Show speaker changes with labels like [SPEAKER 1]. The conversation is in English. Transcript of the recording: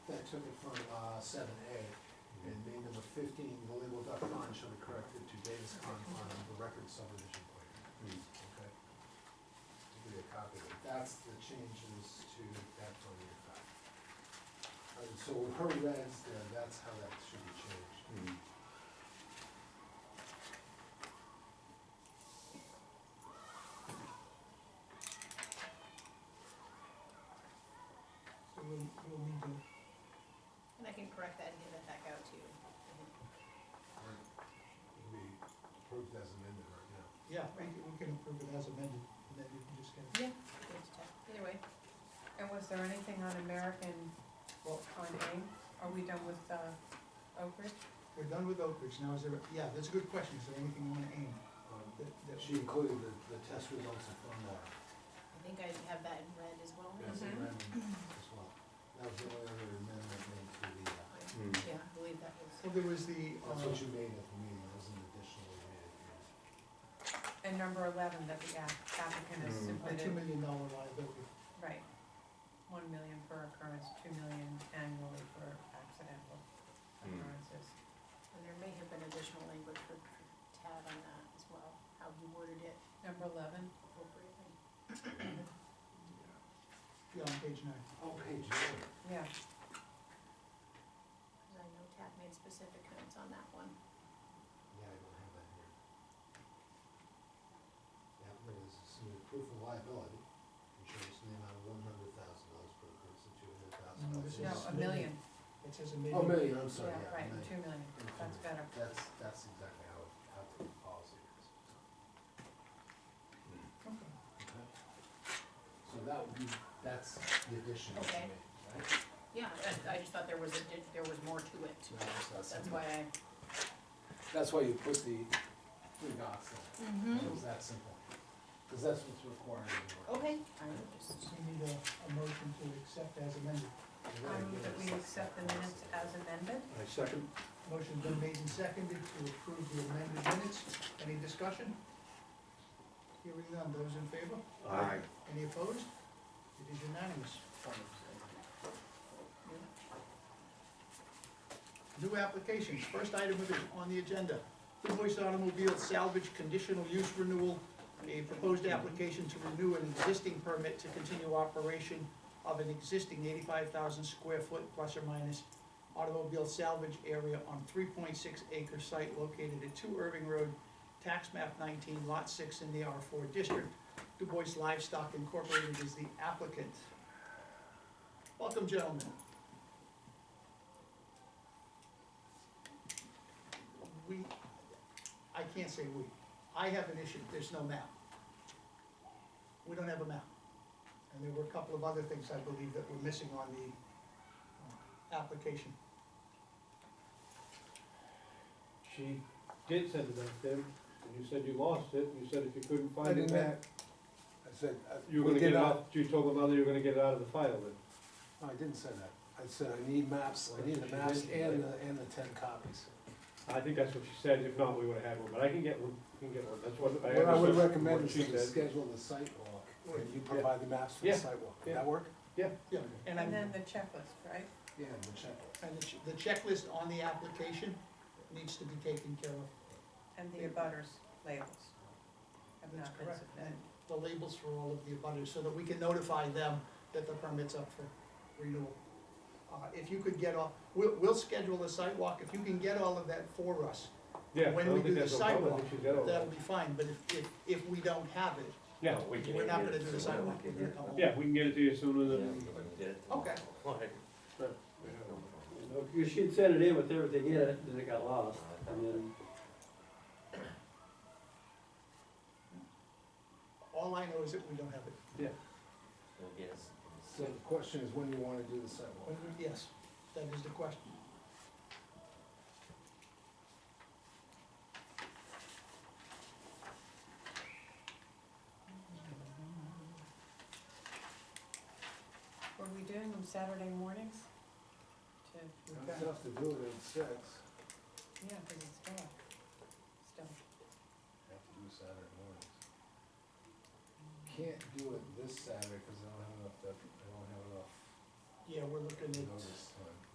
[SPEAKER 1] took it from uh, seven A, and made number fifteen, the label duck pond shall be corrected to Davis Pond on the record subdivision plan, okay? To give you a copy of it, that's the changes to that zoning effect. All right, So her red's there, that's how that should be changed.
[SPEAKER 2] So we'll, we'll need to,
[SPEAKER 3] And I can correct that and get that back out to you.
[SPEAKER 1] Right. It can be approved as amended right now.
[SPEAKER 2] yeah, we can, we can approve it as amended, and then you can just get,
[SPEAKER 3] Yeah. we can just check. Either way,
[SPEAKER 4] And was there anything on American, well, on AIM? Are we done with uh, Oak Ridge?
[SPEAKER 2] we're done with Oak Ridge, now is there, yeah, that's a good question, is there anything on AIM
[SPEAKER 1] Um,
[SPEAKER 2] that, that?
[SPEAKER 1] She included the, the test results of stormwater.
[SPEAKER 3] I think I have that in red as well.
[SPEAKER 1] That's
[SPEAKER 4] Mhm.
[SPEAKER 1] amendment as well. That was the only other amendment made to the, uh,
[SPEAKER 3] Yeah, I believe that was.
[SPEAKER 2] Well, there was the,
[SPEAKER 1] that's
[SPEAKER 2] uh,
[SPEAKER 1] what you made at the meeting, that was an additional you made. at the meeting.
[SPEAKER 4] And number eleven that the app- applicant has
[SPEAKER 5] Mm.
[SPEAKER 2] a two
[SPEAKER 4] submitted,
[SPEAKER 2] million dollar liability,
[SPEAKER 4] right. One million per occurrence, two million annually for accidental
[SPEAKER 5] Mm.
[SPEAKER 4] occurrences.
[SPEAKER 3] And there may have been additional language for for Tad on that as well, how he worded it
[SPEAKER 4] Number eleven,
[SPEAKER 3] appropriately.
[SPEAKER 2] yeah, on page nine.
[SPEAKER 1] Oh, page nine.
[SPEAKER 4] yeah,
[SPEAKER 3] Because I know Tad made specific notes on that one.
[SPEAKER 1] Yeah, I don't have that here. Yeah, there is submitted proof of liability, insurance in the amount of one hundred thousand dollars per occurrence and two hundred thousand
[SPEAKER 2] No,
[SPEAKER 1] dollars.
[SPEAKER 2] this
[SPEAKER 4] Mm, no,
[SPEAKER 2] is
[SPEAKER 4] a million,
[SPEAKER 2] It says a million.
[SPEAKER 1] Oh, million, I'm sorry,
[SPEAKER 4] yeah,
[SPEAKER 1] yeah.
[SPEAKER 4] right,
[SPEAKER 1] million.
[SPEAKER 4] two million, that's better.
[SPEAKER 1] That's, that's exactly how, it- how the policy is.
[SPEAKER 2] Okay.
[SPEAKER 1] Okay. So that would be, that's the addition that
[SPEAKER 3] Okay.
[SPEAKER 1] you made, right?
[SPEAKER 3] Yeah, I, I just thought there was, a di- there was more to it.
[SPEAKER 1] No, that's not
[SPEAKER 3] That's
[SPEAKER 1] simple.
[SPEAKER 3] why I.
[SPEAKER 1] That's why you put the three dots there,
[SPEAKER 3] Hmm?
[SPEAKER 1] it
[SPEAKER 3] Mm-hmm.
[SPEAKER 1] was that simple, because that's what's required in
[SPEAKER 3] Okay. I will just-
[SPEAKER 2] We need a, a motion to accept as amended.
[SPEAKER 1] the
[SPEAKER 4] I
[SPEAKER 1] work.
[SPEAKER 4] move Um, that we accept the minutes as amended.
[SPEAKER 5] I second.
[SPEAKER 2] Motion been made and seconded to approve the amended minutes. Any discussion? Hearing none, those in favor?
[SPEAKER 5] Aye.
[SPEAKER 2] Any opposed? It is unanimous. New applications, first item of it on the agenda, Blue Voice Automobile Salvage Conditional Use Renewal, a proposed application to renew an existing permit to continue operation of an existing eighty-five thousand square foot plus or minus automobile salvage area on three point six acre site located at two Irving Road, tax map nineteen, lot six in the R four district. Du Bois Livestock Incorporated is the applicant. Welcome, gentlemen. We, I can't say we, I have an issue, there's no map. We don't have a map. And there were a couple of other things, I believe, that were missing on the uh, application.
[SPEAKER 6] She did send it back then, and you said you lost it, you said if you couldn't
[SPEAKER 1] I
[SPEAKER 6] find it
[SPEAKER 1] didn't have,
[SPEAKER 6] back,
[SPEAKER 1] I said, uh, I.
[SPEAKER 6] you were
[SPEAKER 1] we
[SPEAKER 6] gonna get
[SPEAKER 1] did
[SPEAKER 6] it
[SPEAKER 1] not-
[SPEAKER 6] out, you told the mother you were gonna get it out of the file then.
[SPEAKER 1] No, I didn't say that, I said I need maps, I need the maps and the, and the ten copies.
[SPEAKER 6] I think that's what she said, if not, we would've had one, but I can get one, I can get one, that's what I
[SPEAKER 1] What I would
[SPEAKER 6] understood from
[SPEAKER 1] recommend
[SPEAKER 6] what
[SPEAKER 1] is
[SPEAKER 6] she
[SPEAKER 1] to
[SPEAKER 6] said.
[SPEAKER 1] schedule the site walk, and you
[SPEAKER 6] Yeah.
[SPEAKER 1] provide the maps for the
[SPEAKER 6] Yeah.
[SPEAKER 1] site walk, would
[SPEAKER 6] Yeah.
[SPEAKER 1] that work?
[SPEAKER 2] Yeah, and I'm.
[SPEAKER 4] And then the checklist, right?
[SPEAKER 1] Yeah, and the checklist.
[SPEAKER 2] And the ch- the checklist on the application needs to be taken care of.
[SPEAKER 4] And the abutters labels have
[SPEAKER 2] That's
[SPEAKER 4] not been
[SPEAKER 2] correct.
[SPEAKER 4] submitted.
[SPEAKER 2] The labels for all of the abutters, so that we can notify them that the permit's up for renewal. Uh, if you could get all, we'll, we'll schedule a sidewalk, if you can get all of that for us,
[SPEAKER 6] Yeah, I
[SPEAKER 2] when
[SPEAKER 6] don't
[SPEAKER 2] we do
[SPEAKER 6] think
[SPEAKER 2] the
[SPEAKER 6] that's a problem, I
[SPEAKER 2] sidewalk,
[SPEAKER 6] think she's got all
[SPEAKER 2] that'll
[SPEAKER 6] that.
[SPEAKER 2] be fine, but if, if, if we don't have it,
[SPEAKER 6] Yeah,
[SPEAKER 2] we're not gonna do the sidewalk, we're gonna come home.
[SPEAKER 6] yeah, we can get it to you sooner than.
[SPEAKER 2] Okay,
[SPEAKER 7] You should send it in with everything in it, then it got lost, and then,
[SPEAKER 2] all I know is that we don't have it,
[SPEAKER 1] So the question is when you wanna do the site walk?
[SPEAKER 2] When we- yes, that is the question.
[SPEAKER 4] Were we doing them Saturday mornings? To,
[SPEAKER 1] It's tough to do it at six, have
[SPEAKER 4] yeah, because it's dark, still.
[SPEAKER 1] to do Saturday mornings. Can't do it this Saturday, cause I don't have enough, dep- I don't have enough
[SPEAKER 2] Yeah, we're looking at
[SPEAKER 1] notice time.